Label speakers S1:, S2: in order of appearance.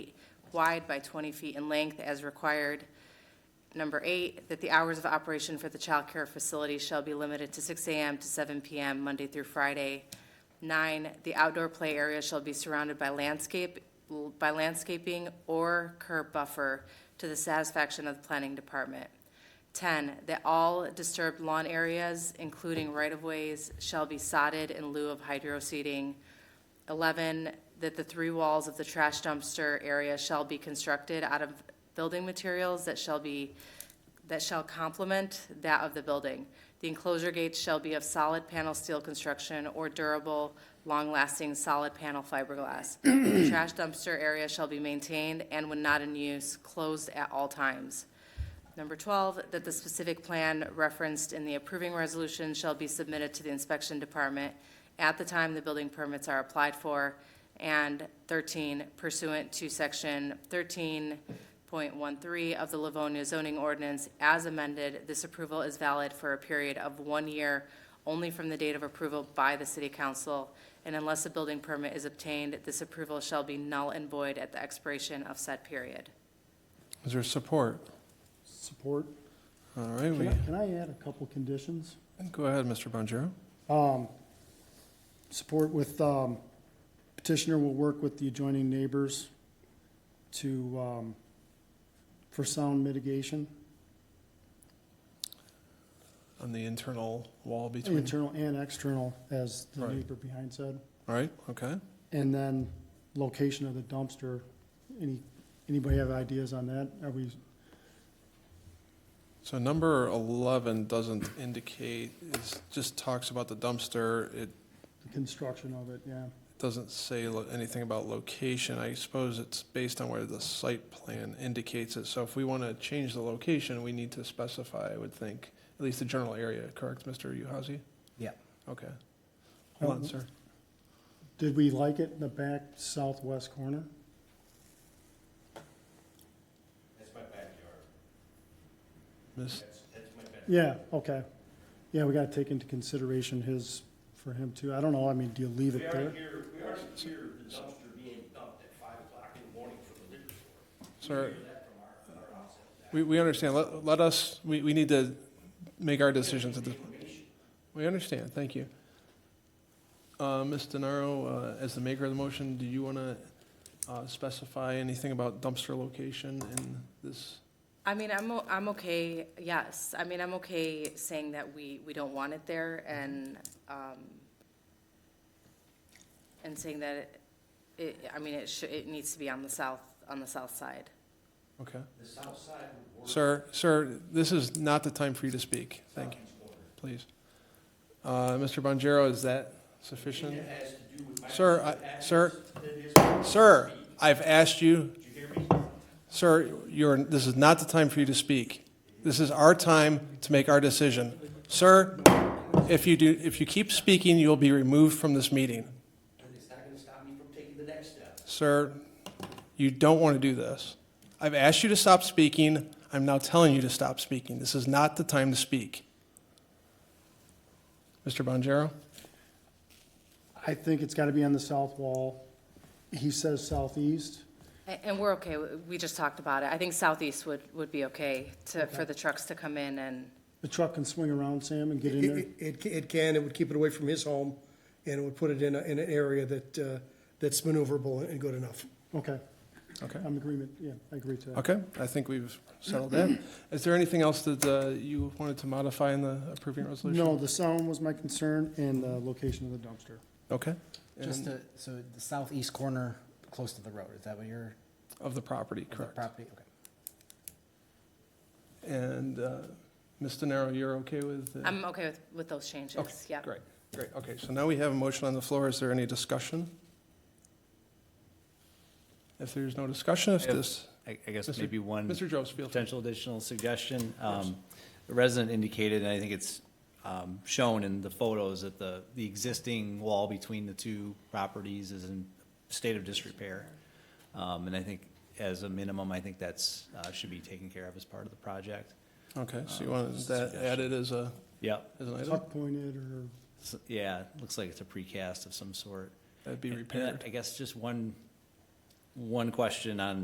S1: wide by 20 feet in length as required. Number eight, that the hours of operation for the child care facility shall be limited to 6 AM to 7 PM, Monday through Friday. Nine, the outdoor play area shall be surrounded by landscape, by landscaping or curb buffer to the satisfaction of the planning department. Ten, that all disturbed lawn areas, including right-of-ways, shall be sodded in lieu of hydro seeding. 11, that the three walls of the trash dumpster area shall be constructed out of building materials that shall be, that shall complement that of the building. The enclosure gates shall be of solid panel steel construction or durable, long-lasting, solid panel fiberglass. The trash dumpster area shall be maintained and when not in use, closed at all times. Number 12, that the specific plan referenced in the approving resolution shall be submitted to the inspection department at the time the building permits are applied for. And 13, pursuant to section 13.13 of the Livonia zoning ordinance as amended, this approval is valid for a period of one year only from the date of approval by the city council. And unless a building permit is obtained, this approval shall be null and void at the expiration of said period.
S2: Is there support?
S3: Support.
S2: All right, we,
S3: Can I, can I add a couple conditions? Um,
S2: go ahead, Mr. Bonjero.
S3: Support with, um, petitioner will work with the adjoining neighbors to, um, for sound mitigation,
S2: On the internal wall between,
S3: internal and external, as the
S2: Right.
S3: neighbor behind said.
S2: all right, okay.
S3: And then location of the dumpster. Any, anybody have ideas on that? Are we,
S2: So number 11 doesn't indicate, it just talks about the dumpster. It
S3: the construction of it, yeah.
S2: doesn't say lo- anything about location. I suppose it's based on where the site plan indicates it. So if we want to change the location, we need to specify, I would think, at least the general area, correct, Mr. Uhazy?
S4: Yeah.
S2: Okay. Hold on,
S3: Um,
S2: sir.
S3: Did we like it in the back southwest corner?
S2: Ms.
S3: Yeah, okay. Yeah, we gotta take into consideration his, for him too. I don't know, I mean, do you leave
S5: We
S3: it there?
S5: already hear, we already hear the dumpster being dumped at five o'clock in the morning from the liquor store.
S2: Sir,
S5: Hear that from our, our house.
S2: we, we understand. Let, let us, we, we need to make our decisions at this point.
S5: Information.
S2: We understand, thank you. Uh, Ms. DeNaro, uh, as the maker of the motion, do you want to specify anything about dumpster location in this?
S1: I mean, I'm, o- I'm okay, yes, I mean, I'm okay saying that we, we don't want it there and, um, and saying that it- it, I mean, it should, it needs to be on the south, on the south side.
S2: Okay.
S5: The south side would work.
S2: Sir, sir, this is not the time for you to speak. Thank you,
S5: Southeast corner.
S2: please. Uh, Mr. Bonjero, is that
S5: And
S2: sufficient?
S5: It has to do with my.
S2: Sir, I- sir,
S5: It is-
S2: Sir, I've asked you,
S5: Did you hear me?
S2: sir, you're, this is not the time for you to speak. This is our time to make our decision. Sir, if you do, if you keep speaking, you'll be removed from this meeting.
S5: And it's not gonna stop me from taking the next step.
S2: Sir, you don't want to do this. I've asked you to stop speaking. I'm now telling you to stop speaking. This is not the time to speak. Mr. Bonjero?
S3: I think it's gotta be on the south wall. He says southeast.
S1: And, and we're okay, we- we just talked about it, I think southeast would, would be okay to, for the trucks to come in and,
S3: The truck can swing around, Sam, and get in there.
S6: It, it- it can, it would keep it away from his home, and it would put it in, a- in an area that, uh, that's maneuverable and good enough.
S3: Okay,
S2: Okay.
S3: I'm agreement, yeah, I agree to that.
S2: Okay, I think we've settled that. Is there anything else that uh, you wanted to modify in the approving resolution?
S3: No, the sound was my concern and the location of the dumpster.
S2: Okay.
S4: Just to,
S2: And
S4: so the southeast corner, close to the road, is that what you're,
S2: Of the property,
S4: of the
S2: correct.
S4: property? Okay.
S2: And uh, Ms. DeNaro, you're okay with? uh,
S1: I'm okay with, with those
S2: Okay,
S1: changes, yeah.
S2: Great, great. Okay, so now we have a motion on the floor. Is there any discussion? If there's no discussion, if
S7: I have-
S2: this,
S7: I I guess
S2: Mr.
S7: maybe one
S2: Mr. Jones, feel free.
S7: potential additional suggestion. Um, The resident indicated, and I think it's um, shown in the photos, that the, the existing wall between the two properties is in state of disrepair. Um, And I think as a minimum, I think that's, uh, should be taken care of as part of the project.
S2: Okay, so you want that
S7: suggestion.
S2: added as a,
S7: Yep,
S2: as an item?
S3: Tuck pointed or,
S7: S- yeah, looks like it's a precast of some sort.
S2: That'd be
S7: And- and
S2: repaired.
S7: I guess just one, one question on